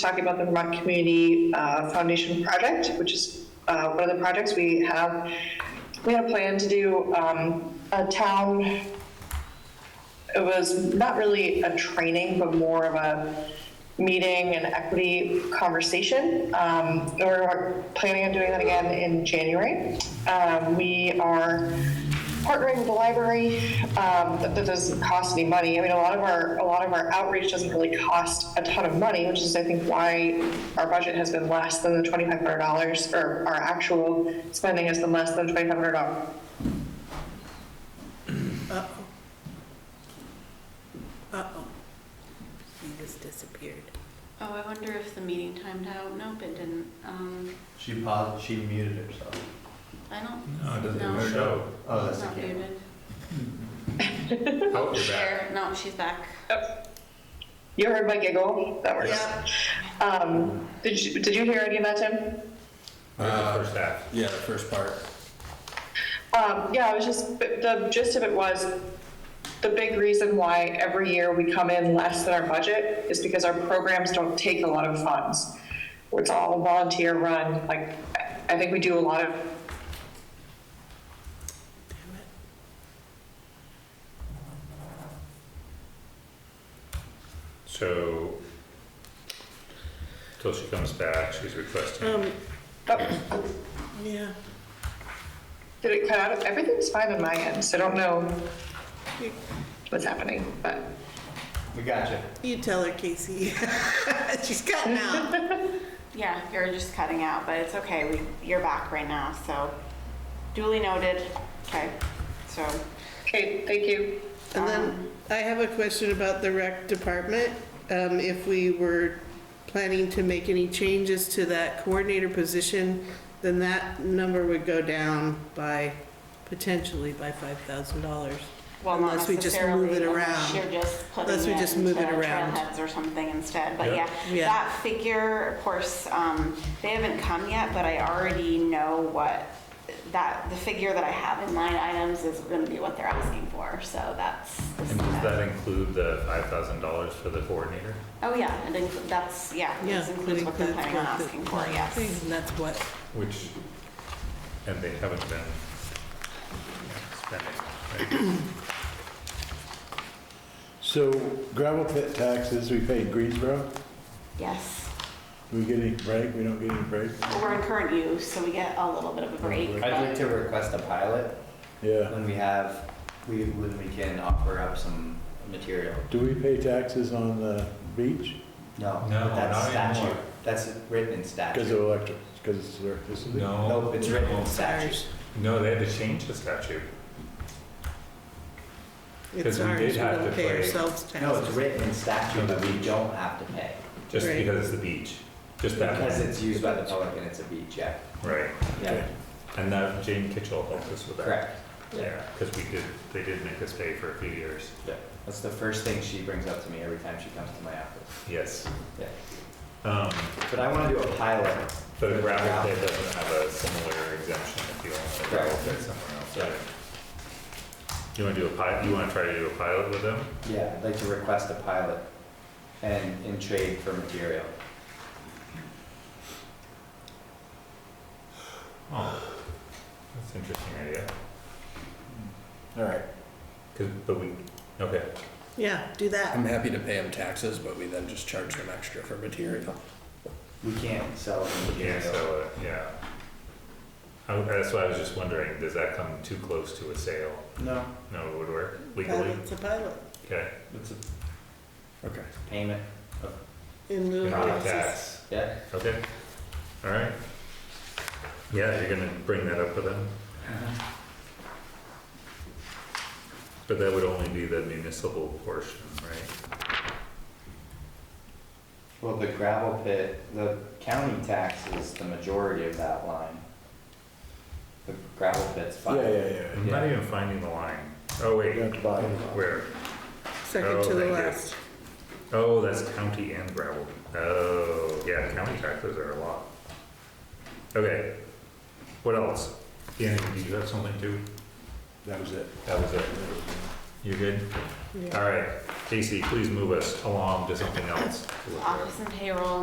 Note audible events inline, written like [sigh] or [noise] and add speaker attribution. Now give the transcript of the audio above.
Speaker 1: talking about the Vermont Community uh, Foundation project, which is uh, one of the projects we have. We had a plan to do um, a town, it was not really a training, but more of a meeting and equity conversation. Um, and We're planning on doing that again in January. Um, We are partnering with the library, um, that, that doesn't cost any money. I mean, a lot of our, a lot of our outreach doesn't really cost a ton of money, which is, I think, why our budget has been less than the twenty-five hundred dollars, or our actual spending has been less than twenty-five hundred dollars.
Speaker 2: Uh-oh. He just disappeared.
Speaker 3: Oh, I wonder if the meeting timed out. Nope, it didn't. Um,
Speaker 4: She paused, she muted herself.
Speaker 3: I don't,
Speaker 5: No, it doesn't
Speaker 3: No.
Speaker 5: show.
Speaker 4: Oh, that's
Speaker 3: it's
Speaker 4: the
Speaker 3: not
Speaker 4: camera.
Speaker 3: muted.
Speaker 5: Oh, you're back.
Speaker 3: There, no, she's back.
Speaker 1: You heard my giggle? That works.
Speaker 3: Yep.
Speaker 1: Um, did you, did you hear any of that, Tim?
Speaker 5: Uh,
Speaker 6: The first half.
Speaker 5: Yeah, the first part.
Speaker 1: Um, yeah, I was just, but the gist of it was, the big reason why every year we come in less than our budget is because our programs don't take a lot of funds. It's all volunteer run, like, I- I think we do a lot of,
Speaker 6: So, till she comes back, she's requesting,
Speaker 2: Um,
Speaker 1: oh,
Speaker 2: yeah,
Speaker 1: did it cut out? Everything's fine on my end, so I don't know what's happening, but,
Speaker 4: We got you.
Speaker 2: you tell her, Casey. [laughs] She's cutting out.
Speaker 3: Yeah, you're just cutting out, but it's okay. We, you're back right now, so duly noted. Okay, so,
Speaker 1: okay, thank you.
Speaker 2: And then I have a question about the rec department. Um, if we were planning to make any changes to that coordinator position, then that number would go down by, potentially by five thousand dollars.
Speaker 3: well, not
Speaker 2: Unless we just move it
Speaker 3: necessarily,
Speaker 2: around.
Speaker 3: unless You're just putting
Speaker 2: Unless we just
Speaker 3: it
Speaker 2: move
Speaker 3: into
Speaker 2: it around.
Speaker 3: trailheads or something instead, but
Speaker 6: Yeah.
Speaker 3: yeah.
Speaker 2: Yeah.
Speaker 3: That figure, of course, um, they haven't come yet, but I already know what, that, the figure that I have in line items is gonna be what they're asking for, so that's.
Speaker 6: and does that include the five thousand dollars for the coordinator?
Speaker 3: Oh, yeah, it includes, that's, yeah,
Speaker 2: Yeah.
Speaker 3: it includes what they're planning on
Speaker 2: what the-
Speaker 3: asking for, yes.
Speaker 2: And that's what,
Speaker 6: Which, and they haven't been spending, right?
Speaker 7: So gravel pit taxes, we pay in Greensboro,
Speaker 3: Yes,
Speaker 7: we get any break, we don't get any break?
Speaker 3: we're in current use, so we get a little bit of a break,
Speaker 4: I'd like
Speaker 3: but
Speaker 4: to request a pilot
Speaker 7: Yeah,
Speaker 4: when we have, we, when we can offer up some material.
Speaker 7: do we pay taxes on the beach?
Speaker 4: No,
Speaker 5: No,
Speaker 4: but that's
Speaker 5: not
Speaker 4: statute.
Speaker 5: anymore.
Speaker 4: That's written in
Speaker 7: Because
Speaker 4: statute.
Speaker 7: of electric, because it's electricity?
Speaker 5: No.
Speaker 4: Nope, it's written in
Speaker 5: No.
Speaker 4: statute.
Speaker 6: No, they had to change the statute. Because
Speaker 2: it's
Speaker 6: we
Speaker 2: ours,
Speaker 6: did
Speaker 2: we
Speaker 6: have
Speaker 2: don't
Speaker 6: to
Speaker 2: pay
Speaker 6: pay-
Speaker 2: ourselves
Speaker 4: No, it's
Speaker 2: taxes.
Speaker 4: written in statute that we don't have to pay
Speaker 6: Just
Speaker 2: Right.
Speaker 6: because it's the beach, just that
Speaker 4: because
Speaker 6: one,
Speaker 4: it's used by the public and it's a beach, yeah.
Speaker 6: right?
Speaker 4: Yeah,
Speaker 6: And that Jane Kitchell helped us with that.
Speaker 4: correct.
Speaker 6: Yeah, because we did, they did make us pay for a few years.
Speaker 4: Yeah. That's the first thing she brings up to me every time she comes to my office.
Speaker 6: Yes.
Speaker 4: Yeah.
Speaker 6: Um,
Speaker 4: But I want to do a pilot.
Speaker 6: But a gravel pit doesn't have a similar exemption if you want a gravel pit somewhere else,
Speaker 4: Yeah.
Speaker 6: right? You wanna do a pilot, you wanna try to do a pilot with them?
Speaker 4: Yeah, I'd like to request a pilot and in trade for material.
Speaker 6: Oh, that's an interesting idea, Hmm.
Speaker 7: All right,
Speaker 6: 'Cause- but we, okay,
Speaker 2: Yeah, do that.
Speaker 5: I'm happy to pay them taxes, but we then just charge them extra for material.
Speaker 4: We can't sell the
Speaker 6: yeah,
Speaker 4: material.
Speaker 6: so, uh, yeah. I- that's why I was just wondering, does that come too close to a sale?
Speaker 4: No,
Speaker 6: No, it would work legally?
Speaker 2: Pilot's a pilot
Speaker 6: Okay,
Speaker 4: it's a
Speaker 5: Okay.
Speaker 4: payment of,
Speaker 2: in lieu of
Speaker 6: not a
Speaker 2: taxes.
Speaker 6: tax,
Speaker 4: yeah.
Speaker 6: okay, all right. Yeah, you're gonna bring that up with them?
Speaker 4: Uh-huh.
Speaker 6: But that would only be the municipal portion, right?
Speaker 4: Well, the gravel pit, the county tax is the majority of that line. The gravel pit's
Speaker 7: yeah,
Speaker 4: fine.
Speaker 7: yeah, yeah,
Speaker 6: I'm not even finding the line. Oh, wait,
Speaker 7: you have to buy it.
Speaker 6: where?
Speaker 2: Second
Speaker 6: Oh,
Speaker 2: to the
Speaker 6: thank you.
Speaker 2: last.
Speaker 6: Oh, that's county and gravel. Oh, yeah, county taxes are a lot. Okay, what else? Dan, do you have something too?
Speaker 7: that was it.
Speaker 6: That was it. You good?
Speaker 2: Yeah.
Speaker 6: All right, Casey, please move us along to something else.
Speaker 3: office and payroll